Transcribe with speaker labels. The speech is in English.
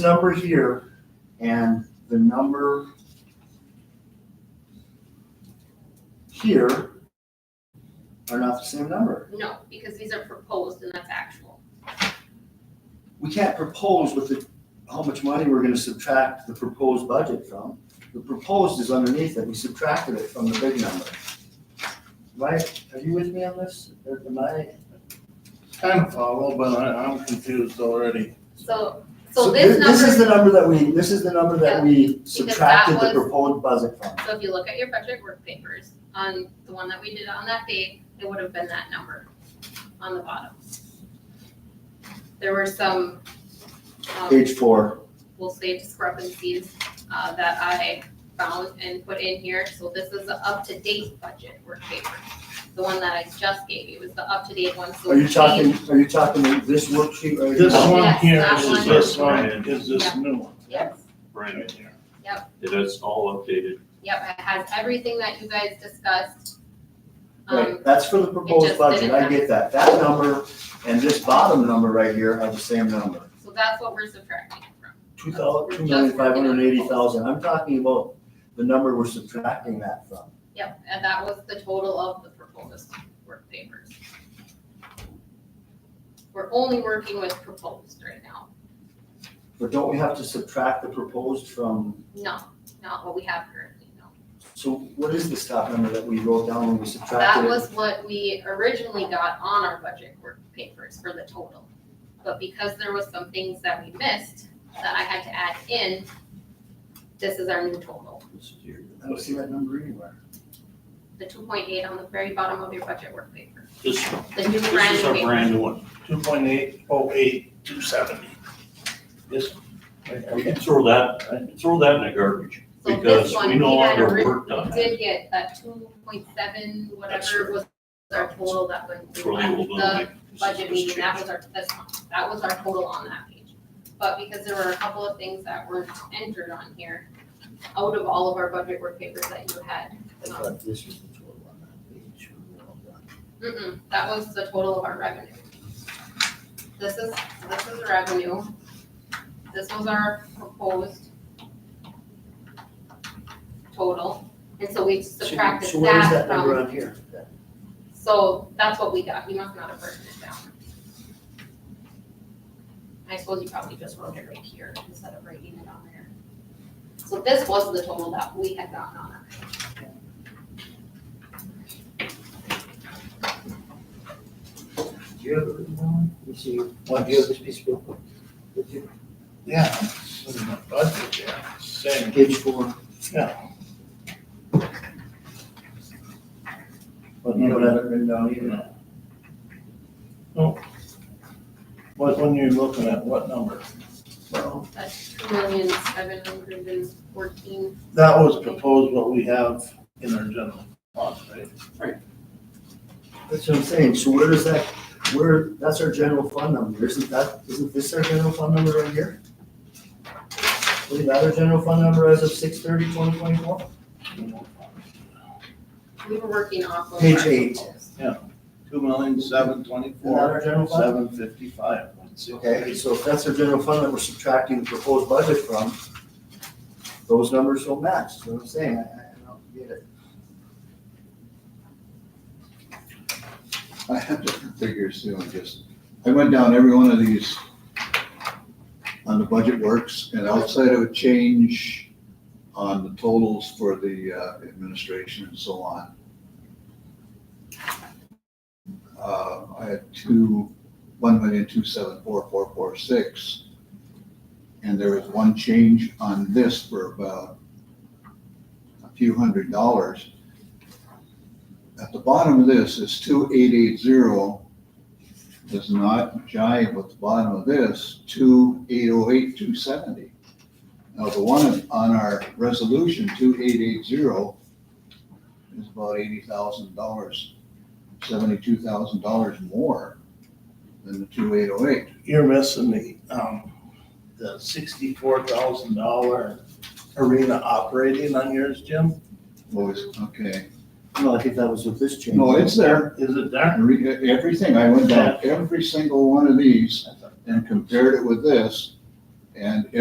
Speaker 1: number here and the number here are not the same number.
Speaker 2: No, because these are proposed and that's actual.
Speaker 1: We can't propose with the, how much money we're gonna subtract the proposed budget from. The proposed is underneath it, we subtracted it from the big number. Right, are you with me on this? Or Am I?
Speaker 3: Kind of follow, but I, I'm confused already.
Speaker 2: So, so this
Speaker 1: This is the
Speaker 2: number,
Speaker 1: number that we, this is the number that we
Speaker 2: that
Speaker 1: subtracted the
Speaker 2: was-
Speaker 1: proposed budget from.
Speaker 2: so if you look at your budget work papers, on the one that we did on that date, it would have been that number on the bottom. There were some, um,
Speaker 1: Page four,
Speaker 2: we'll say discrepancies, uh, that I found and put in here. So this is the up-to-date budget work paper. The one that I just gave you was the up-to-date one, so.
Speaker 1: are you
Speaker 2: it's
Speaker 1: talking, are you talking this worksheet right
Speaker 3: This
Speaker 1: here?
Speaker 3: one here
Speaker 2: that
Speaker 3: is
Speaker 2: one.
Speaker 3: this one, is this
Speaker 2: Yeah.
Speaker 3: new one
Speaker 2: changed. Yes.
Speaker 3: right
Speaker 4: Brand,
Speaker 3: here.
Speaker 4: it is all updated.
Speaker 2: Yep, it has everything that you guys discussed. Um,
Speaker 1: Right, that's for the proposed
Speaker 2: just
Speaker 1: budget,
Speaker 2: didn't
Speaker 1: I
Speaker 2: have-
Speaker 1: get that. That number and this bottom number right here are the same number.
Speaker 2: so that's what we're subtracting it from.
Speaker 1: Two thousand, two million, five hundred and eighty thousand, I'm talking about the number we're subtracting that from.
Speaker 2: Yep, and that was the total of the proposed work papers. We're only working with proposed right now,
Speaker 1: But don't we have to subtract the proposed from,
Speaker 2: no, not what we have currently, no.
Speaker 1: so what is this top number that we wrote down when we
Speaker 2: That
Speaker 1: subtracted it?
Speaker 2: was what we originally got on our budget work papers for the total. But because there was some things that we missed that I had to add in, this is our new total.
Speaker 1: I don't see that number anywhere.
Speaker 2: The two point eight on the very bottom of your budget work paper.
Speaker 4: This,
Speaker 2: The new brand
Speaker 4: this is
Speaker 2: new
Speaker 4: our
Speaker 2: paper.
Speaker 4: brand new one.
Speaker 3: Two point eight oh eight two seventy. This. right,
Speaker 4: We
Speaker 3: okay.
Speaker 4: can throw that, throw that in the garbage
Speaker 2: So
Speaker 4: because
Speaker 2: this one,
Speaker 4: we no
Speaker 2: we had
Speaker 4: longer
Speaker 2: ori-
Speaker 4: worked on
Speaker 2: We
Speaker 4: it.
Speaker 2: did get that two point seven,
Speaker 4: That's
Speaker 2: whatever was our total that went
Speaker 4: Throw the old one
Speaker 2: the
Speaker 4: away. This is
Speaker 2: budget
Speaker 4: what's
Speaker 2: meeting, that
Speaker 4: changed.
Speaker 2: was our, this one, that was our total on that page. But because there were a couple of things that weren't entered on here, out of all of our budget work papers that you had.
Speaker 1: I thought this was the total on that page. We were all done.
Speaker 2: Mm-mm, that was the total of our revenue. This is, this is revenue. This was our proposed total, and so we
Speaker 1: So-
Speaker 2: subtracted
Speaker 1: So where is that
Speaker 2: that
Speaker 1: number
Speaker 2: from,
Speaker 1: on here?
Speaker 2: so that's what we got, you must not have written it down. I suppose you probably just wrote it right here instead of writing it on there. So this was the total that we had gotten on our
Speaker 1: Do you have it written down? Let me see, Why do you have this piece of paper? With you?
Speaker 3: Yeah, this is my budget here, same.
Speaker 1: Page four.
Speaker 3: Yeah.
Speaker 1: But you don't have it written down either.
Speaker 3: What, when you're looking at what number?
Speaker 1: Well,
Speaker 2: That's two million, seven hundred and fourteen
Speaker 3: That was proposed what we have in our general fund, right?
Speaker 1: that's what I'm saying, so where is that, where, that's our general fund number, isn't that, isn't this our general fund number right here? Isn't that our general fund number as of six thirty, twenty twenty-four?
Speaker 2: We were working off of.
Speaker 1: Page
Speaker 2: our
Speaker 1: eight.
Speaker 2: proposed.
Speaker 3: Two million, seven
Speaker 1: Isn't that
Speaker 3: twenty-four,
Speaker 1: our general fund?
Speaker 3: seven fifty-five.
Speaker 1: Okay, so if that's our general fund that we're subtracting the proposed budget from, those numbers don't match, that's what I'm saying, I, I I don't get it.
Speaker 5: I have different figures too, I just, I went down every one of these on the budget works, and outside of a change on the totals for the uh, administration and so on. Uh, I had two, one million, two, seven, four, four, four, six. And there was one change on this for about a few hundred dollars. At the bottom of this is two eight eight zero does not jive with the bottom of this, two eight oh eight two seventy. Now, the one on our resolution, two eight eight zero, is about eighty thousand dollars, seventy-two thousand dollars more than the two eight oh eight.
Speaker 3: You're missing the, um, the sixty-four thousand dollar arena operating on yours, Jim?
Speaker 5: Oh, okay,
Speaker 1: No, I think that was with this change.
Speaker 5: no, it's there,
Speaker 3: Is it there?
Speaker 5: Re- everything, I went down every single one of these and compared it with this, and